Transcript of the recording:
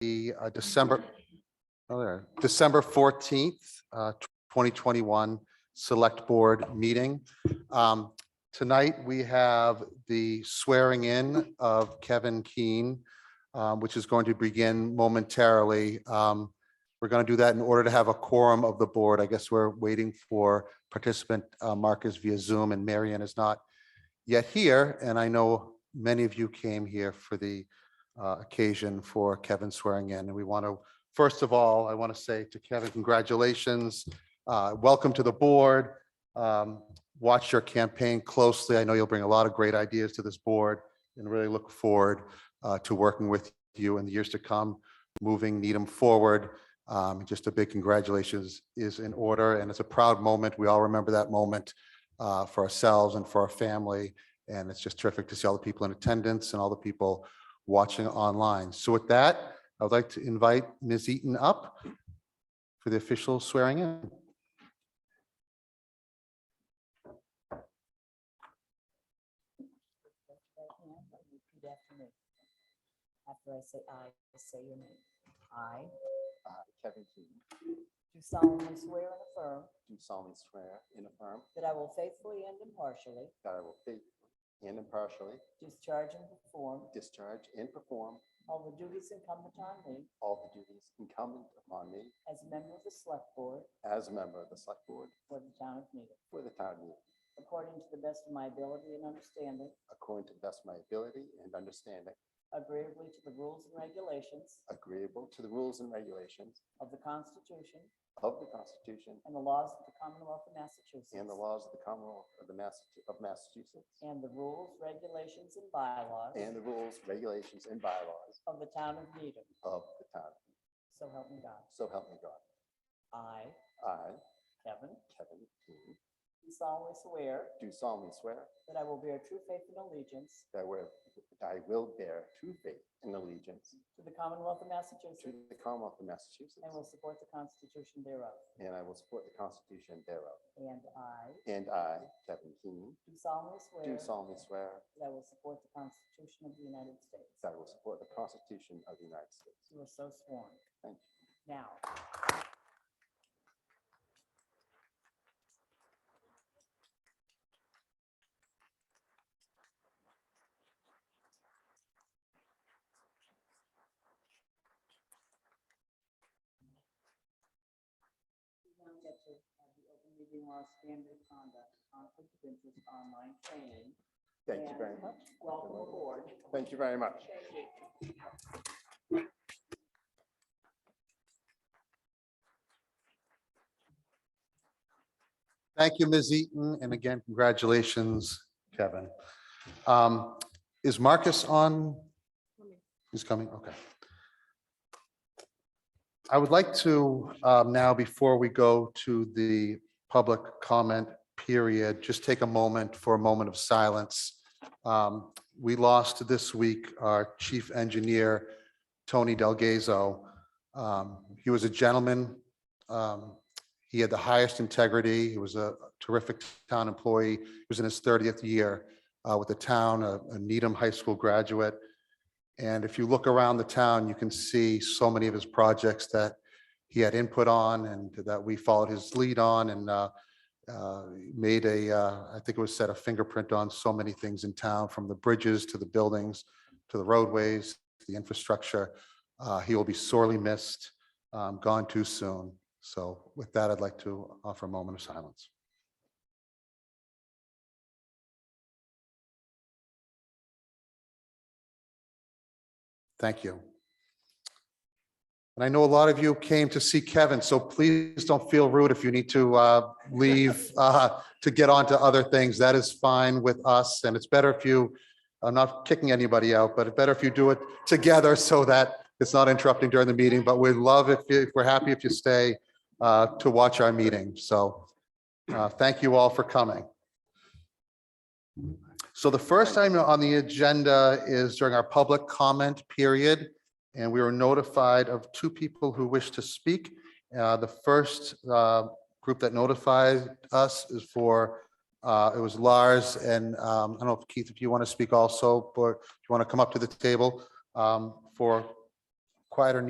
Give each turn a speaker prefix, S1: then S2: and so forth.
S1: the uh, December, oh, there, December fourteenth, uh, twenty twenty-one Select Board Meeting. Um, Tonight, we have the swearing in of Kevin Keen, um, which is going to begin momentarily. Um, We're going to do that in order to have a quorum of the board. I guess we're waiting for participant uh, Marcus via Zoom, and Marion is not yet here, and I know many of you came here for the uh, occasion for Kevin swearing in. And we want to, first of all, I want to say to Kevin, congratulations. uh, Welcome to the board. Um, Watch your campaign closely. I know you'll bring a lot of great ideas to this board and really look forward uh, to working with you in the years to come, moving Needham forward. Um, Just a big congratulations is in order, and it's a proud moment. We all remember that moment uh, for ourselves and for our family. And it's just terrific to see all the people in attendance and all the people watching online. So with that, I would like to invite Ms. Eaton up for the official swearing in.
S2: Right hand, and repeat after me. After I say aye, just say your name. I
S3: I, uh, Kevin Keaton,
S2: do solemnly swear and affirm
S3: do solemnly swear and affirm
S2: that I will faithfully and impartially
S3: that I will faithfully and impartially
S2: discharge and perform
S3: discharge and perform
S2: all the duties incumbent on me
S3: all the duties incumbent upon me
S2: as a member of the Select Board
S3: as a member of the Select Board
S2: for the town of Needham,
S3: for the town of Needham,
S2: according to the best of my ability and understanding,
S3: according to the best of my ability and understanding,
S2: agreeably to the rules and regulations
S3: agreeable to the rules and regulations
S2: of the Constitution
S3: of the Constitution
S2: and the laws of the Commonwealth of Massachusetts.
S3: and the laws of the Commonwealth of the Massa- of Massachusetts,
S2: and the rules, regulations, and bylaws
S3: and the rules, regulations, and bylaws
S2: of the town of Needham.
S3: of the town.
S2: So help me God.
S3: So help me God.
S2: I,
S3: I,
S2: Kevin,
S3: Kevin Keaton,
S2: do solemnly swear
S3: do solemnly swear
S2: that I will bear true faith and allegiance
S3: that I will- I will bear true faith and allegiance
S2: to the Commonwealth of
S3: To
S2: Massachusetts
S3: the Commonwealth of Massachusetts.
S2: and will support the Constitution thereof.
S3: And I will support the Constitution thereof.
S2: And I
S3: And I, Kevin Keeney,
S2: do solemnly
S3: do
S2: swear
S3: solemnly swear
S2: that I will support the Constitution of the United States.
S3: that I will support the Constitution of the United States.
S2: You are so sworn.
S3: Thank you.
S2: Now, we now get to have the open meeting law standard of conduct, conflict of interest, online training.
S3: Thank you
S2: and
S3: very much.
S2: Welcome aboard.
S3: Thank you very much.
S2: Thank you.
S1: Thank you, Ms. Eaton, and again, congratulations, Kevin. Um, Is Marcus on? He's coming, okay. I would like to um, now, before we go to the public comment period, just take a moment for a moment of silence. Um, We lost this week our chief engineer, Tony Delgazo. Um, He was a gentleman. um, he had the highest integrity. He was a terrific town employee. He was in his 30th year uh, with the town, a a Needham High School graduate. And if you look around the town, you can see so many of his projects that he had input on and that we followed his lead on and uh, uh, made a, uh, I think it was set a fingerprint on so many things in town, from the bridges to the buildings, to the roadways, to the infrastructure. Uh, He will be sorely missed, um, gone too soon. So with that, I'd like to offer a moment of silence. Thank you. And I know a lot of you came to see Kevin, so please don't feel rude if you need to uh, leave uh, to get on to other things. That is fine with us, and it's better if you, I'm not kicking anybody out, but it's better if you do it together so that it's not interrupting during the meeting, but we'd love if, you- if we're happy if you stay uh, to watch our meeting. So uh, thank you all for coming. So the first item on the agenda is during our public comment period. And we were notified of two people who wish to speak. Uh, The first uh, group that notified us is for, uh, it was Lars and um, I don't know if Keith, if you want to speak also, or if you want to come up to the table um, for quieter